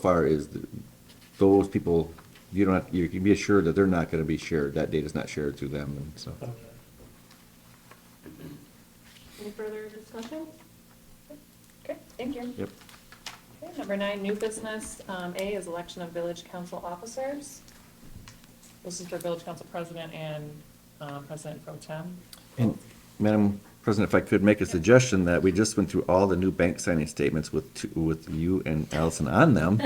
far is th- those people, you don't, have- you can be assured that they're not gonna be shared, that data's not shared through them, and so. Any further discussion? Okay, thank you. Yep. Okay, number nine, new business. Um, A is election of village council officers. This is for village council president and, um, president pro tem. And Madam President, if I could make a suggestion that we just went through all the new bank signing statements with, two- with you and Allison on them.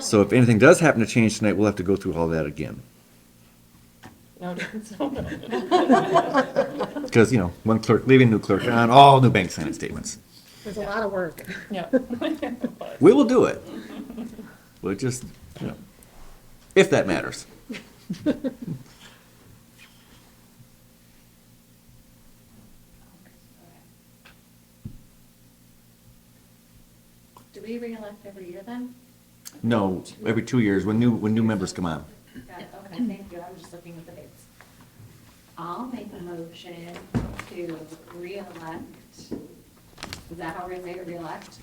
So if anything does happen to change tonight, we'll have to go through all that again. No, don't. Because, you know, one clerk, leaving new clerk on all new bank signing statements. There's a lot of work. yeah. But- We will do it. We'll just, you know, if that matters. Do we reelect every year then? No, every two years, when new, when new members come on. Got it, okay, thank you, I'm just looking at the dates. I'll make a motion to reelect, is that how we say it, reelect?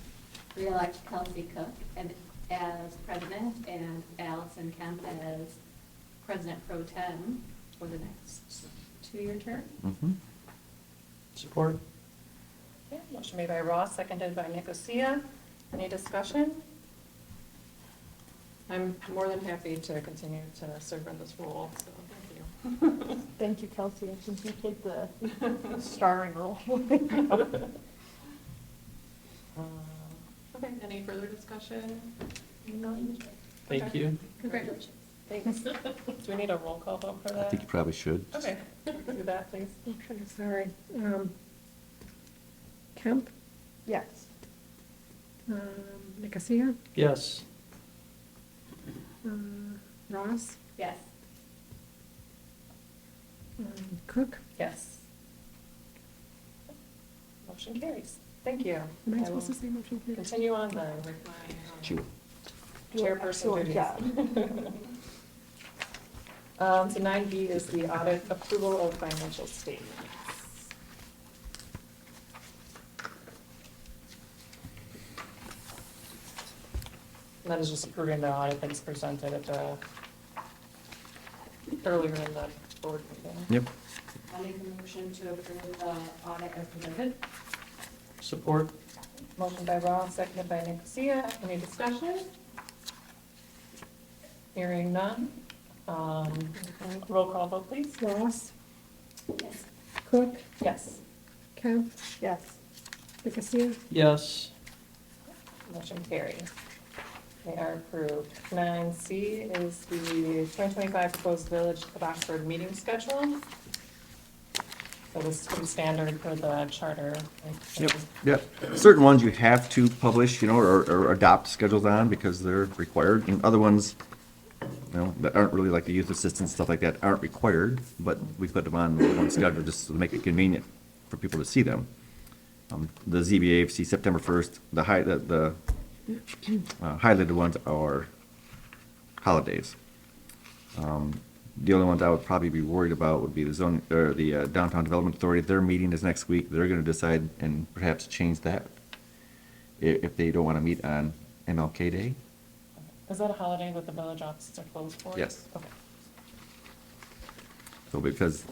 Reelect Kelsey Cook and- as president and Allison Kemp as president pro tem for the next two-year term. Mhm. Support? Okay, Motion made by Ross, seconded by Nicosia. Any discussion? I'm more than happy to continue to serve in this role, so thank you. Thank you, Kelsey, I think you take the starring role. Uh, Okay, any further discussion? Thank Okay. you. Congratulations. Thanks. Do we need a roll call vote for I that? think you probably should. Okay, do that, please. Okay, sorry. Um, Kemp? Yes. Um, Nicosia? Yes. Uh, Ross? Yes, Um, Cook? Yes. Motion carries. Thank you. Am I I supposed to say motion will here? Continue on then with my Sure. um, chairperson Excellent job. duties. Um, so nine B is the audit approval of financial statements. And that is just approving the audit that's presented at the, earlier in the board meeting. Yep. I'll make a motion to approve the audit as presented. Support? Motion by Ross, seconded by Nicosia. Any discussion? Hearing none. Um, Roll call vote, please. Ross? Yes. Cook? Yes. Kemp? Yes. Nicosia? Yes. Motion carries. They are approved. Nine C is the 2025 proposed Village of Oxford meeting schedule. So this is pretty standard for the charter. like, Yep, yep. Certain ones you have to publish, you know, or, or adopt schedules on because they're required, and other ones, you know, that aren't really like the youth assistance, stuff like that, aren't required, but we put them on one schedule just to make it convenient for people to see them. Um, The ZBA, see September first, the high, the, the uh, highlighted ones are holidays. Um, The only ones I would probably be worried about would be the zone, or the uh, Downtown Development Authority. Their meeting is next week. They're gonna decide and perhaps change that i- if they don't wanna meet on MLK Day. Is that a holiday that the village offices are closed for? Yes. Okay. So because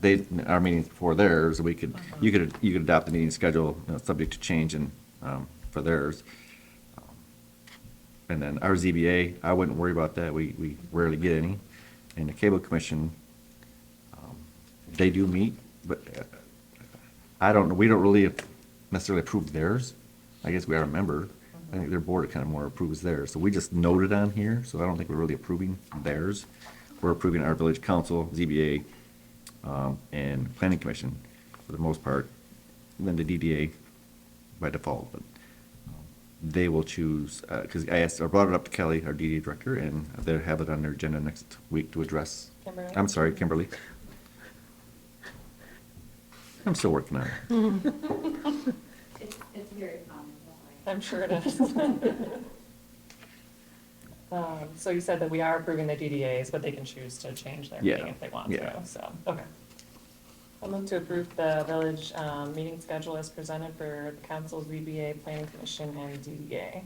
they, our meeting's before theirs, we could, you could, you could adopt the meeting schedule, you know, subject to change and, um, for theirs. And then our ZBA, I wouldn't worry about that. We, we rarely get any. And the cable commission, um, they do meet, but uh, I don't know, we don't really necessarily approve theirs. I guess we are a member. I think their board kind of more approves theirs. So we just noted on here, so I don't think we're really approving theirs. We're approving our village council, ZBA, um, and planning commission for the most part. And then the DDA by default, but um, they will choose, because I asked, I brought it up to Kelly, our DD director, and they'll have it on their agenda next week to address. Kimberly. I'm sorry, Kimberly. I'm still working on it. It's, it's very common. don't worry. I'm sure it is. Um, So you said that we are approving the DDAs, but they can choose to change their meeting Yeah, if they want yeah. to, so, okay. I'll move to approve the village um, meeting schedule as presented for the council, ZBA, planning commission, and DDA.